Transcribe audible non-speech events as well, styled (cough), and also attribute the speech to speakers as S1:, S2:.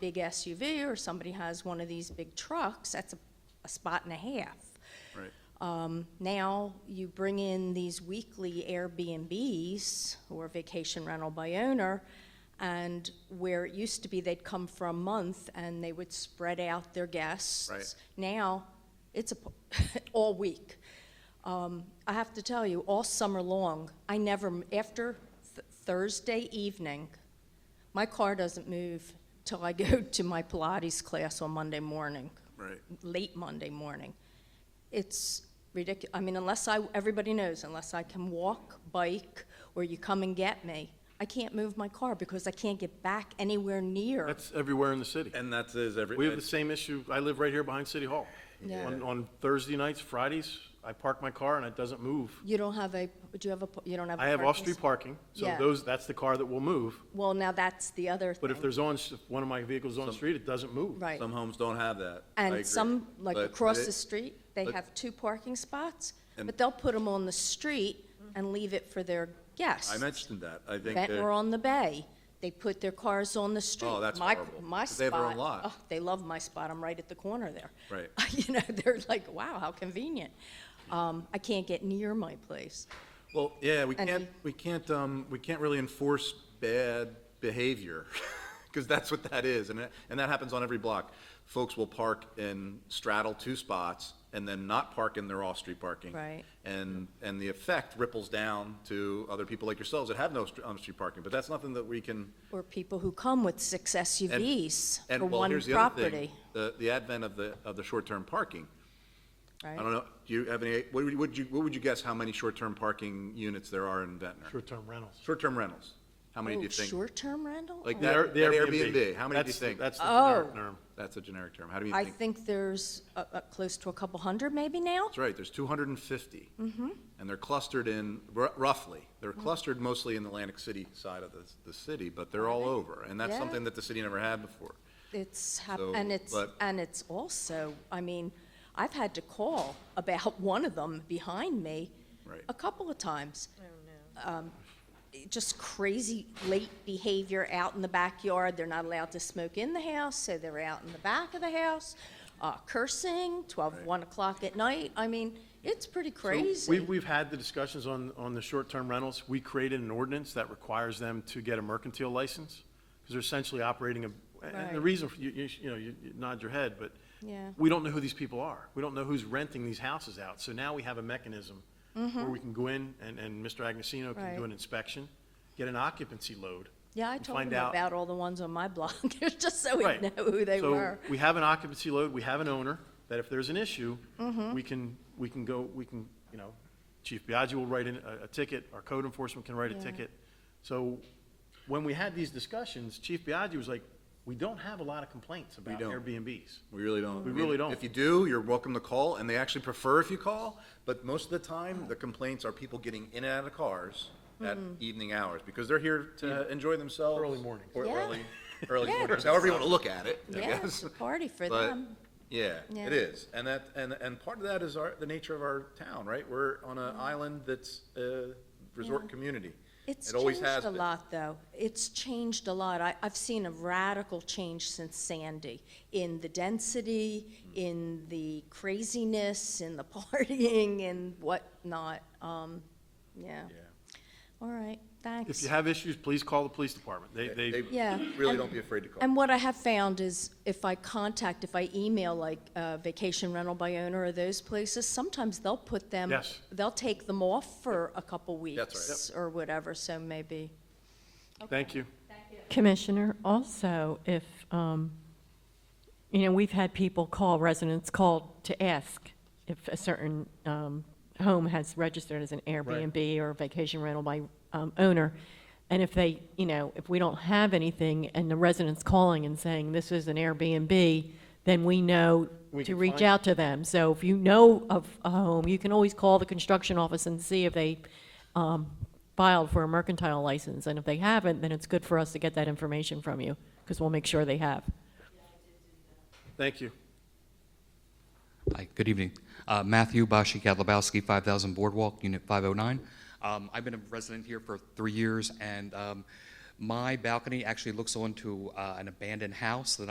S1: big SUV or somebody has one of these big trucks, that's a, a spot and a half.
S2: Right.
S1: Um, Now, you bring in these weekly Airbnbs or vacation rental by owner, and where it used to be they'd come for a month and they would spread out their guests.
S2: Right.
S1: Now, it's a, p- (laughs) all week. Um, I have to tell you, all summer long, I never, m- after th- Thursday evening, my car doesn't move till I go (laughs) to my Pilates class on Monday morning
S2: Right.
S1: late Monday morning. It's ridiculous. I mean, unless I, everybody knows, unless I can walk, bike, or you come and get me, I can't move my car because I can't get back anywhere near.
S3: That's everywhere in the city.
S2: And that is every.
S3: We have the same issue. I live right here behind City Hall.
S1: Yeah.
S3: On, on Thursday nights, Fridays, I park my car and it doesn't move.
S1: You don't have a, do you have a, you don't have a
S3: I have
S1: parking
S3: off-street
S1: sp-
S3: parking, so
S1: Yeah.
S3: those, that's the car that will move.
S1: Well, now that's the other thing.
S3: But if there's on, if one of my vehicles on the street, it doesn't move.
S1: Right.
S2: Some homes don't have that. I agree.
S1: And some, like
S2: But
S1: across
S2: it-
S1: the street, they
S2: but-
S1: have two parking spots,
S2: And-
S1: but they'll put them on the street and leave it for their guests.
S2: I mentioned that. I think.
S1: Ventnor
S2: they're-
S1: on the Bay. They put their cars on the street.
S2: that's
S1: My-
S2: horrible,
S1: My
S2: 'cause they have their own
S1: spot-
S2: lot.
S1: oh, They love my spot, I'm right at the corner there.
S2: Right.
S1: (laughs) You know, they're like, wow, how convenient. Um, I can't get near my place.
S2: Well, yeah, we
S1: And
S2: can't, we can't, um, we can't really enforce bad behavior, (laughs) because that's what that is, and, it- and that happens on every block. Folks will park and straddle two spots, and then not park in their off-street parking.
S1: Right.
S2: And, and the effect ripples down to other people like yourselves that have no str- on-street parking, but that's nothing that we can.
S1: Or people who come with six
S2: and-
S1: SUVs
S2: and,
S1: for
S2: well,
S1: one
S2: here's the other thing,
S1: property,
S2: The, the advent of the, of the short-term parking.
S1: right?
S2: I don't know, do you have any, what would you- would you, what would you guess how many short-term parking units there are in Ventnor?
S3: Short-term rentals.
S2: Short-term rentals, how many do you think?
S1: Short-term Oh, rental?
S2: Like
S1: Oh.
S3: The
S2: that-
S3: Air- the
S2: Airbnb, how many do you
S3: That's-
S2: think?
S3: That's the
S1: Oh.
S3: generic term.
S2: That's a generic term, how do you
S1: I
S2: think?
S1: think there's, uh, uh, close to a couple hundred maybe now?
S2: That's right, there's two hundred and fifty.
S1: Mm-hmm.
S2: And they're clustered in, r- roughly, they're clustered mostly in the Atlantic City side of the, the city, but they're all over, and that's
S1: Yeah.
S2: something that the city never had before.
S1: It's hap-
S2: So,
S1: and it's
S2: but-
S1: and it's also. I mean, I've had to call about (laughs) one of them behind me
S2: Right.
S1: a couple of times. Oh no! Um, just crazy late behavior out in the backyard. They're not allowed to smoke in the house, so they're out in the back of the house, uh, cursing 12,
S2: Right.
S1: 1 o'clock at night. I mean, it's pretty
S3: So
S1: crazy.
S3: We've, we've had the discussions on, on the short-term rentals. We created an ordinance that requires them to get a mercantile license, because they're essentially operating a, and the
S1: Right.
S3: reason, for- you, you, you know, you you nod your head, but
S1: Yeah.
S3: we don't know who these people are. We don't know who's renting these houses out. So now we have a mechanism where we can go in, and, and Mr. Agnesino
S1: Mm-hmm.
S3: can
S1: Right.
S3: do an inspection, get an occupancy load.
S1: yeah, I
S3: and
S1: told them
S3: find out-
S1: about all the ones on my (laughs) blog, just so we
S3: Right.
S1: know who they were.
S3: So we have an occupancy load, we have an owner, that if there's an issue,
S1: Mm-hmm.
S3: we can, we can go, we can, you know, Chief Biagi will write in a, a ticket, our code enforcement can write a
S1: Yeah.
S3: ticket. So when we had these discussions, Chief Biagi was like, we don't have a lot of complaints about
S2: don't.
S3: Airbnbs.
S2: We really don't.
S3: We
S2: I mean,
S3: really don't.
S2: If you do, you're welcome to call, and they actually prefer if you call, but most of the time, the complaints are people getting in and out of cars at
S1: Mm-hmm.
S2: evening hours, because they're here to enjoy themselves.
S3: Early mornings.
S2: Or
S1: Yeah. (laughs)
S2: early, early
S1: Yeah.
S2: mornings, however you want to look at it, I
S1: Yeah, (laughs)
S2: guess.
S1: it's a party for
S2: But,
S1: them.
S2: Yeah,
S1: Yeah.
S2: it is, and that, and, and part of that is our, the nature of our town, right? We're on an
S1: Mm-hmm.
S2: island that's a resort community.
S1: It's
S2: It always
S1: changed
S2: has
S1: a
S2: been.
S1: lot, though. It's changed a lot. I, I've seen a radical change since Sandy in the density,
S2: Hmm.
S1: in the craziness, in the (laughs) partying, and whatnot. Um, yeah.
S2: Yeah.
S1: All right. Thanks.
S3: If you have issues, please call the police department. They,
S2: They
S3: they,
S1: Yeah.
S2: really don't be afraid to call.
S1: And what I have found is if I contact, if I email like uh, vacation rental by owner or those places, sometimes they'll put them,
S3: Yes.
S1: they'll take them off for a couple
S2: right.
S1: weeks or whatever. So maybe.
S3: thank you.
S4: Commissioner, also, if, um, you know, we've had people call, residents call to ask if a certain um, home has registered as an Airbnb or vacation rental by um, owner, and if they, you know, if we don't have anything and the resident's calling and saying this is an Airbnb, then we know
S3: We
S4: to
S3: can
S4: reach
S3: find-
S4: out to them. So if you know of a home, you can always call the construction office and see if they um, filed for a mercantile license, and if they haven't, then it's good for us to get that information from you, because we'll make sure they have.
S3: Thank you.
S5: Hi, good evening. Uh, Matthew Bashi Katlebowski, 5000 Boardwalk, Unit 509. Um, I've been a resident here for three years, and um, my balcony actually looks onto uh, an abandoned house that